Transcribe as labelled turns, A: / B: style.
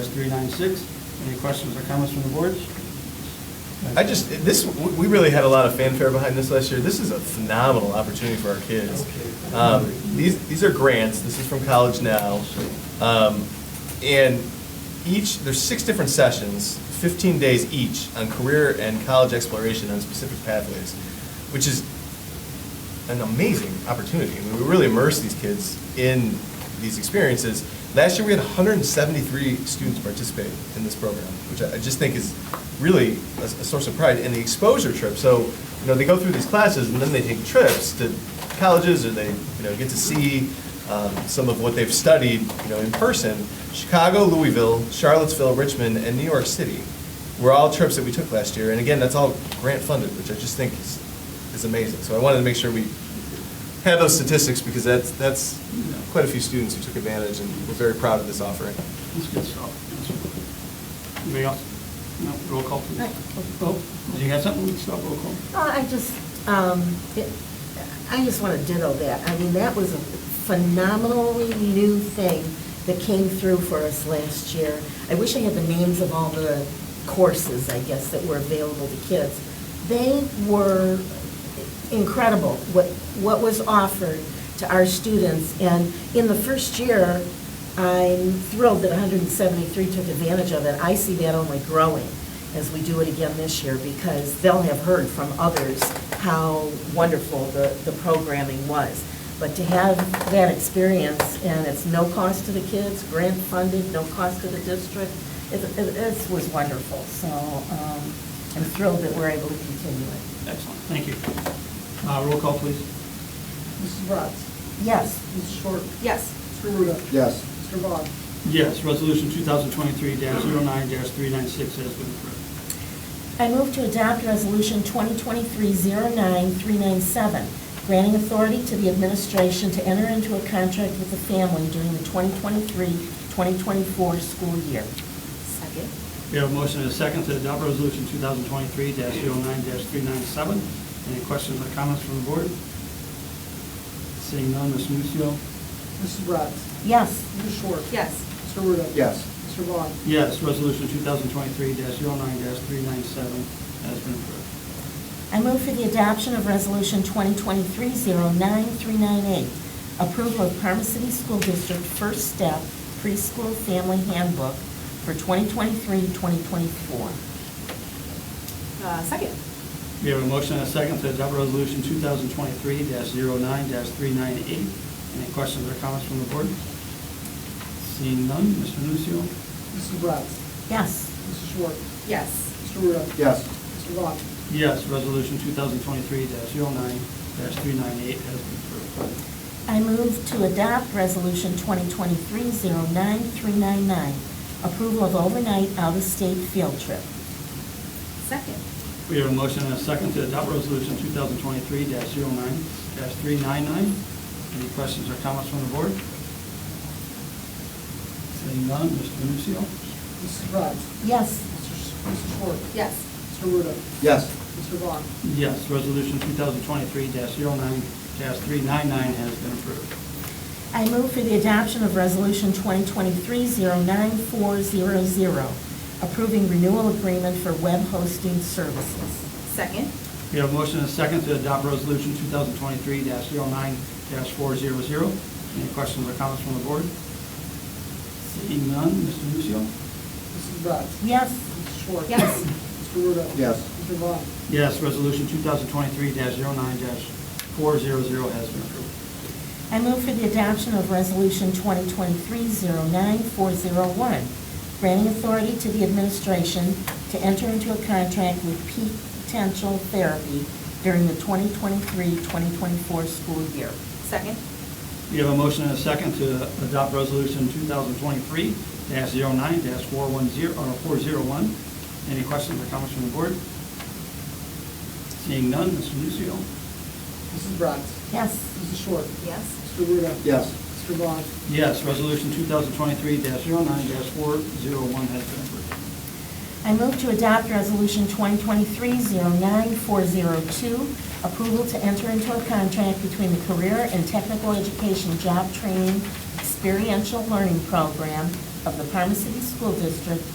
A: three-nine-six. Any questions or comments from the board?
B: I just, this, we really had a lot of fanfare behind this last year. This is a phenomenal opportunity for our kids. Um, These, these are grants, this is from College Now. Um, And each, there's six different sessions, 15 days each, on career and college exploration on specific pathways, which is an amazing opportunity. I mean, we really immerse these kids in these experiences. Last year, we had 173 students participate in this program, which I I just think is really a, a source of pride. And the exposure trip, so, you know, they go through these classes and then they take trips to colleges or they, you know, get to see um, some of what they've studied, you know, in person. Chicago, Louisville, Charlottesville, Richmond, and New York City were all trips that we took last year. And again, that's all grant funded, which I just think is is amazing. So I wanted to make sure we had those statistics because that's, that's quite a few students who took advantage and we're very proud of this offering.
A: That's good stuff. Anybody else? No, roll call, please.
C: Right.
A: Oh, you got something? Stop roll call.
C: Well, I just, um, it- I just want to ditto that. I mean, that was a phenomenally new thing that came through for us last year. I wish I had the names of all the courses, I guess, that were available to kids. They were incredible, what, what was offered to our students. And in the first year, I'm thrilled that 173 took advantage of it. I see that only growing as we do it again this year, because they'll have heard from others how wonderful the, the programming was. But to have that experience, and it's no cost to the kids, grant-funded, no cost to the district, it, it it was wonderful. So um, I'm thrilled that we're able to continue it.
A: Excellent, thank you. Uh, roll call, please.
D: Mrs. Bratz?
C: Yes.
D: Mrs. Short?
C: Yes.
D: Mr. Ruda?
E: Yes.
D: Mr. Vaughn?
A: Yes, resolution two thousand twenty-three 9 three-nine-six has been approved.
C: I move to adopt Resolution 2023-09397, granting authority to the administration to enter into a contract with the family during the 2023-2024 school year. Second.
A: We have a motion and a second to adopt resolution two thousand twenty-three 9 three-nine-seven. Any questions or comments from the board? Seeing none, Ms. Nusio.
D: Mrs. Bratz?
C: Yes.
D: Mrs. Short?
C: Yes.
D: Mr. Ruda?
E: Yes.
D: Mr. Vaughn?
A: Yes, resolution two thousand twenty-three oh 9 three-nine-seven has been approved.
C: I move for the adoption of Resolution 2023-09398, approval of Parma City School District First Step Preschool Family Handbook for 2023-2024.
F: Uh, Second.
A: We have a motion and a second to adopt resolution 2023-09-398. Any questions or comments from the board? Seeing none, Mr. Nucio.
D: Mrs. Bratz?
C: Yes.
D: Mrs. Short?
F: Yes.
D: Mr. Ruda?
E: Yes.
D: Mr. Vaughn?
A: Yes, resolution 2023-09-398 has been approved.
C: I move to adopt Resolution 2023-09399, approval of overnight out-of-state field trip.
F: Second.
A: We have a motion and a second to adopt resolution 2023-09-399. Any questions or comments from the board? Seeing none, Mr. Nucio.
D: Mrs. Bratz?
C: Yes.
D: Mrs. Mrs. Short?
F: Yes.
D: Mr. Ruda?
E: Yes.
D: Mr. Vaughn?
A: Yes, resolution 2023-09-399 has been approved.
C: I move for the adoption of Resolution 2023-09400, approving renewal agreement for web hosting services.
F: Second.
A: We have a motion and a second to adopt resolution 2023-09-400. Any questions or comments from the board? Seeing none, Mr. Nucio.
D: Mrs. Bratz?
C: Yes.
D: Mrs. Short?
F: Yes.
D: Mr. Ruda?
E: Yes.
D: Mr. Vaughn?
A: Yes, resolution 2023-09-400 has been approved.
C: I move for the adoption of Resolution 2023-09401, granting authority to the administration to enter into a contract with Peak Potential Therapy during the 2023-2024 school year.
F: Second.
A: We have a motion and a second to adopt resolution 2023-09-410, or 401. Any questions or comments from the board? Seeing none, Mr. Nucio.
D: Mrs. Bratz?
C: Yes.
D: Mrs. Short?
F: Yes.
D: Mr. Ruda?
E: Yes.
D: Mr. Vaughn?
A: Yes, resolution 2023-09-401 has been approved.
C: I move to adopt Resolution 2023-09402, approval to enter into a contract between the Career and Technical Education Job Training Experiential Learning Program of the Parma City School District